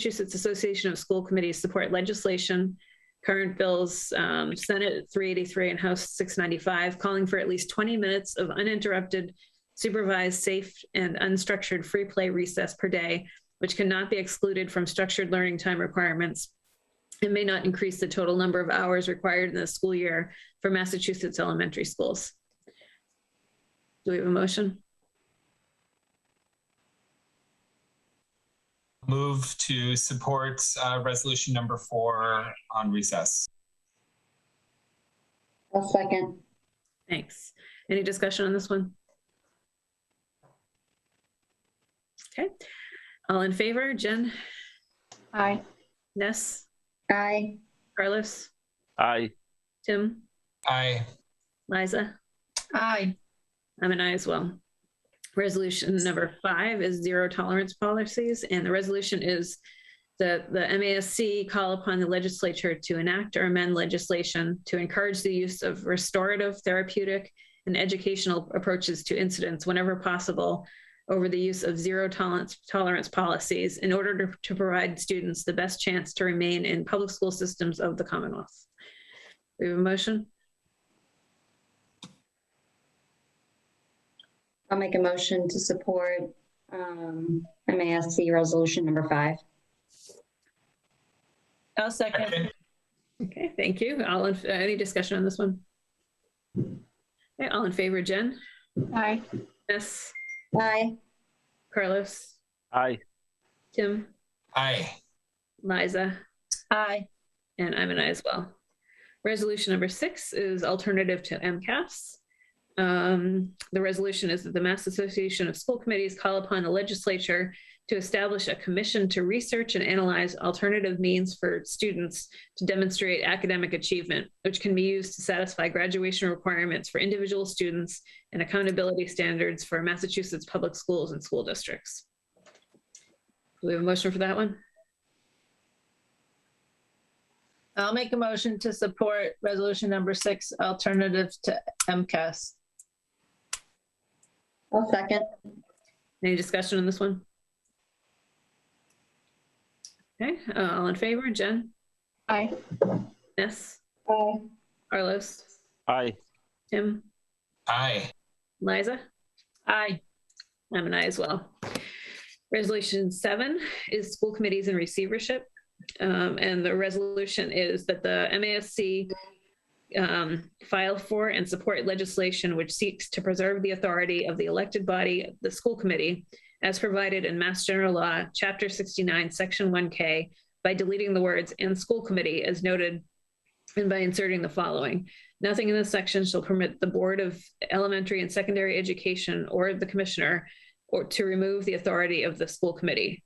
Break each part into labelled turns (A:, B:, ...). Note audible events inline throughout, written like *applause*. A: Massachusetts Association of School Committees support legislation, current bills, um, Senate 383 and House 695, calling for at least 20 minutes of uninterrupted supervised, safe, and unstructured free play recess per day, which cannot be excluded from structured learning time requirements. It may not increase the total number of hours required in the school year for Massachusetts elementary schools. Do we have a motion?
B: Move to support uh, resolution number four on recess.
C: I'll second.
A: Thanks. Any discussion on this one? Okay, all in favor, Jen,
C: Aye.
A: Ness,
C: Aye.
A: Carlos,
D: Aye.
A: Tim,
B: Aye.
A: Liza?
C: Aye.
A: I'm an aye as well. Resolution number five is zero tolerance policies, and the resolution is that the MASC call upon the legislature to enact or amend legislation to encourage the use of restorative, therapeutic, and educational approaches to incidents whenever possible over the use of zero tolerance, tolerance policies in order to, to provide students the best chance to remain in public school systems of the Commonwealth. We have a motion?
C: I'll make a motion to support um, MASC Resolution Number Five.
E: I'll second.
B: Second.
A: Okay, thank you. All, in- uh, any discussion on this one? Okay, all in favor, Jen?
E: Aye.
A: Yes.
C: Aye.
A: Carlos?
D: Aye.
A: Tim?
B: Aye.
A: Liza?
E: Aye.
A: And I'm an I as well. Resolution number six is alternative to MCAS. Um, The resolution is that the Mass Association of School Committees call upon the legislature to establish a commission to research and analyze alternative means for students to demonstrate academic achievement, which can be used to satisfy graduation requirements for individual students and accountability standards for Massachusetts public schools and school districts. Do we have a motion for that one?
E: I'll make a motion to support resolution number six, alternative to MCAS.
C: I'll second.
A: Any discussion on this one? Okay, uh, all in favor, Jen?
E: Aye.
A: Ness?
C: Aye.
A: Carlos?
D: Aye.
A: Tim?
B: Aye.
A: Liza?
E: Aye.
A: I'm an aye as well. Resolution seven is school committees and receivership. Um, and the resolution is that the MASC um, file for and support legislation which seeks to preserve the authority of the elected body, the school committee, as provided in Mass General Law, Chapter 69, Section 1K, by deleting the words "and school committee" as noted, and by inserting the following: Nothing in this section shall permit the Board of Elementary and Secondary Education or the Commissioner or to remove the authority of the school committee.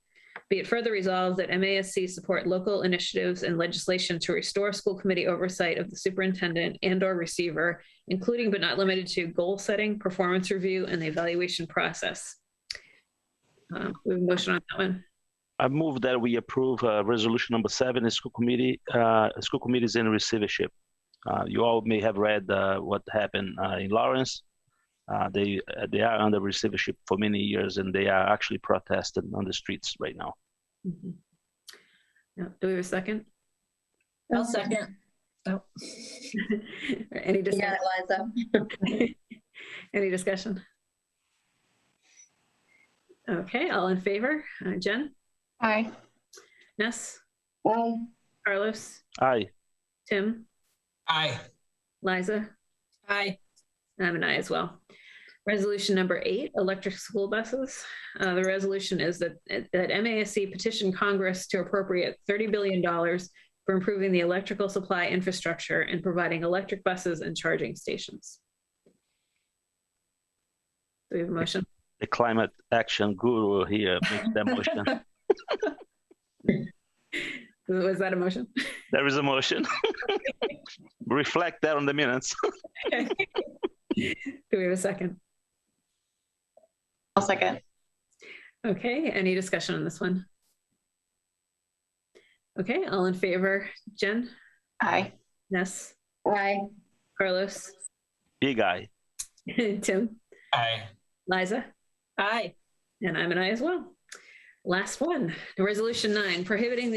A: Be it further resolved that MASC support local initiatives and legislation to restore school committee oversight of the superintendent and/or receiver, including but not limited to goal setting, performance review, and the evaluation process. Um, We have a motion on that one.
D: I move that we approve uh, resolution number seven, school committee, uh, school committees in receivership. Uh, You all may have read uh, what happened uh, in Lawrence. Uh, They, uh, they are under receivership for many years, and they are actually protesting on the streets right now.
A: Mhm. Yeah, Do we have a second? *laughs*
E: I'll second. Oh.
A: Any
C: You got
A: discussion?
C: it, Liza.
A: *laughs* Any discussion? Okay, all in favor? Uh, Jen?
E: Aye.
A: Ness?
C: Aye.
A: Carlos?
D: Aye.
A: Tim?
B: Aye.
A: Liza?
E: Aye.
A: I'm an aye as well. Resolution number eight, electric school buses. Uh, the resolution is that, that MASC petitioned Congress to appropriate $30 billion for improving the electrical supply infrastructure and providing electric buses and charging stations. Do we have a motion?
D: The climate action guru here makes that motion.
A: Was that a motion?
D: There is a motion. *laughs* Reflect that on the minutes. *laughs*
A: Do we have a second?
E: I'll second.
A: Okay, any discussion on this one? Okay, all in favor, Jen,
E: Aye.
A: Ness,
C: Aye.
A: Carlos, *laughs*
D: Big eye.
A: Tim,
B: Aye.
A: Liza,
E: Aye.
A: and I'm an I as well. Last one, resolution nine, prohibiting the